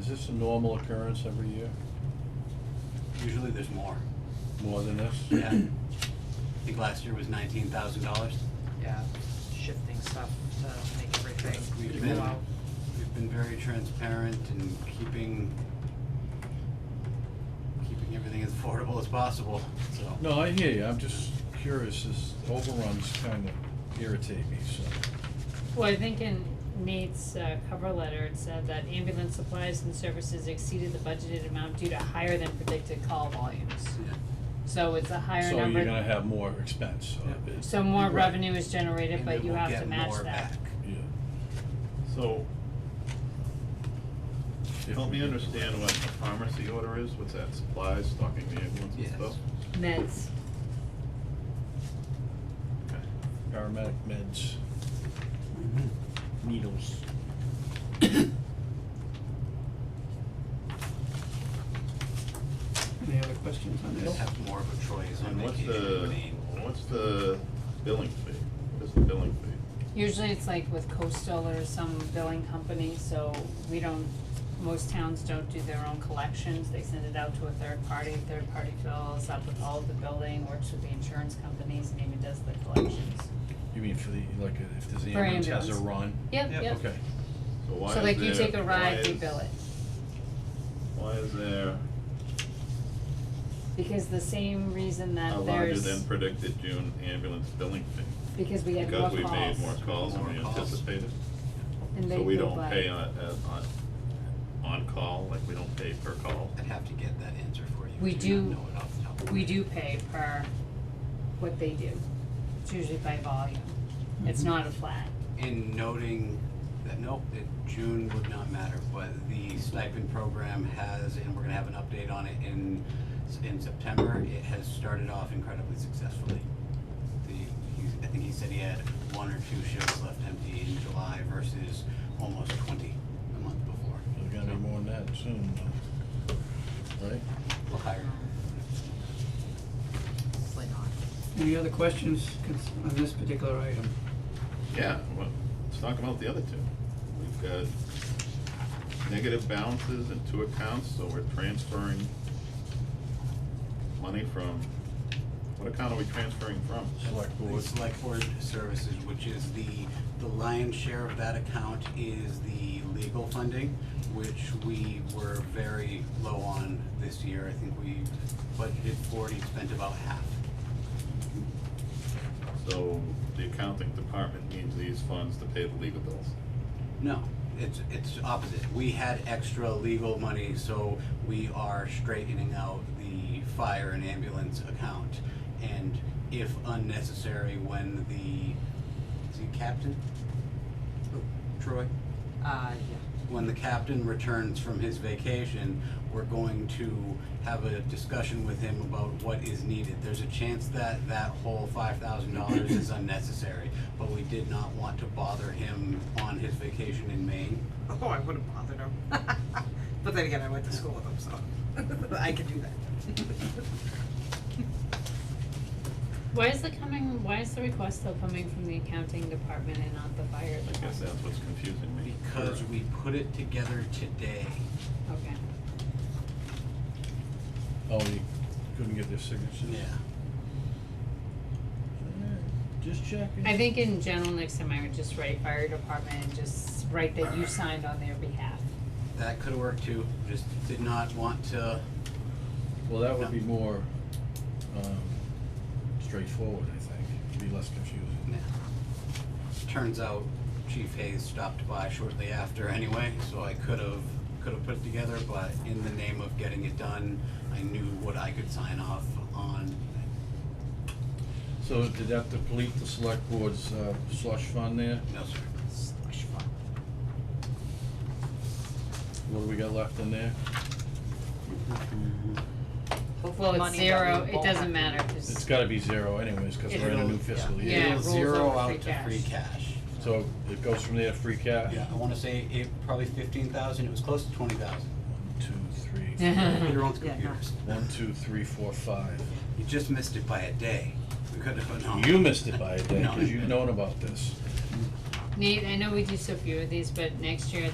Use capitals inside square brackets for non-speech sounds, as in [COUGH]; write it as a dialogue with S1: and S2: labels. S1: Is this a normal occurrence every year,
S2: Usually there's
S3: [CLEARS THROAT]
S2: more.
S1: more than this?
S2: Yeah. I think last year was nineteen thousand dollars.
S4: yeah, shifting stuff to make
S2: We've
S4: everything
S2: been,
S4: go out.
S2: we've been very transparent and keeping, keeping everything as affordable as possible, so.
S1: No, I hear you, I'm just curious, this overruns kind of irritate me, so.
S5: Well, I think in Nate's uh cover letter, it said that ambulance supplies and services exceeded the budgeted amount due to higher than predicted call volumes.
S2: Yeah.
S5: So it's a higher
S1: So you're
S5: number,
S1: gonna have more expense, so.
S2: Yeah.
S1: it-
S5: so more
S1: right,
S5: revenue is generated,
S2: And then
S5: but you
S2: we'll
S5: have
S2: get
S5: to match
S2: more
S5: that.
S2: back.
S1: Yeah.
S3: So,
S1: If
S3: help
S1: we
S3: me
S1: get-
S3: understand what a pharmacy order is, what's that, supplies, stocking the ambulance and
S2: Yes.
S3: stuff?
S5: Meds,
S3: Okay.
S1: Paramedic meds,
S2: Mm-hmm.
S1: needles.
S6: Any other questions on
S2: Just
S6: this?
S2: have more of a choice on
S3: And what's
S2: vacation
S3: the,
S2: name.
S3: what's the billing fee? What is the billing fee?
S5: usually it's like with coastal or some billing company, so we don't, most towns don't do their own collections, they send it out to a third party, third party fills up with all of the billing, works with the insurance companies, and even does the collections.
S1: You mean for the, like, uh, if there's the ambulance has a
S5: ambulance.
S1: run?
S5: Yep,
S6: Yep.
S5: yep.
S1: Okay,
S3: So why is
S5: So
S3: there,
S5: like
S3: why
S5: you take a ride, we
S3: is-
S5: bill it,
S3: Why is there
S5: because the same reason
S3: a
S5: that
S3: larger than
S5: there's,
S3: predicted June ambulance billing fee?
S5: because we had more
S3: Because we made more
S5: calls,
S3: calls than
S2: More
S3: we
S2: calls.
S3: anticipated?
S5: and they
S3: So we
S5: go
S3: don't
S5: by-
S3: pay on, uh, on, on call, like we don't pay per call?
S2: I'd have to get that answer for you.
S5: We
S2: I
S5: do-
S2: not know it off the top of my
S5: We
S2: head.
S5: do pay per what they do, it's usually by volume, it's not a flat,
S2: in noting that, nope, that June would not matter, but the stipend program has, and we're gonna have an update on it in, in September, it has started off incredibly successfully. The, he's, I think he said he had one or two shifts left empty in July versus almost twenty the month before.
S1: there's gonna be more than that soon, though. right?
S2: Well, higher.
S4: It's like on.
S6: Any other questions cons- on this particular item?
S3: Yeah, well, let's talk about the other two. We've got negative balances in two accounts, so we're transferring money from, what account are we transferring from?
S1: Select
S2: The
S1: board.
S2: Select Board Services, which is the, the lion's share of that account is the legal funding, which we were very low on this year. I think we budgeted forty, spent about half.
S3: So the accounting department needs these funds to pay the legal bills.
S2: No, it's, it's opposite. We had extra legal money, so we are straightening out the fire and ambulance account. And if unnecessary, when the, is he captain? Troy?
S4: Uh, yeah,
S2: when the captain returns from his vacation, we're going to have a discussion with him about what is needed. There's a chance that that whole five thousand dollars is unnecessary, but we did not want to bother him on his vacation in Maine.
S4: oh, I wouldn't bother them. [LAUGHS] But then again, I went to school with them, so [LAUGHS] I could do that.
S5: Why is it coming, why is the request still coming from the accounting department and not the fire
S3: I
S5: department?
S3: guess that's what's confusing me.
S2: Because we put it together today.
S5: Okay,
S1: Oh, you couldn't get their signatures? Just checking.
S5: I think in general, next time I would just write fire department and just write that you signed on their behalf.
S2: That could have worked too, just did not want to,
S1: Well, that would be more, um, straightforward, I think, It'd be less confusing.
S2: nah. Turns out Chief Hayes stopped by shortly after anyway, so I could have, could have put it together, but in the name of getting it done, I knew what I could sign off on.
S1: So did that deplete the select board's, uh, slush fund there?
S2: No, sir.
S4: Slush fund.
S1: What do we got left in there?
S5: Well,
S4: Money
S5: it's
S4: that we
S5: zero, it
S4: won't
S5: doesn't
S4: have to
S5: matter,
S1: It's
S5: cause,
S1: gotta be zero anyways, cause we're in a new fiscal
S5: Yeah, it
S1: year.
S2: It'll
S5: rolls
S2: zero
S5: over
S2: out
S5: free
S2: to free
S5: cash.
S2: cash.
S1: So it goes from there, free cash?
S2: Yeah, I wanna say it, probably fifteen thousand, it was close to twenty thousand.
S5: [LAUGHS]
S1: One, two, three,
S2: Your own
S4: Yeah, no.
S2: computers.
S1: one, two, three, four, five.
S2: You just missed it by a day. We could have, no.
S1: You missed it by a day,
S2: No.
S1: cause you've known about this.
S5: Nate, I know we do so few of these, but next year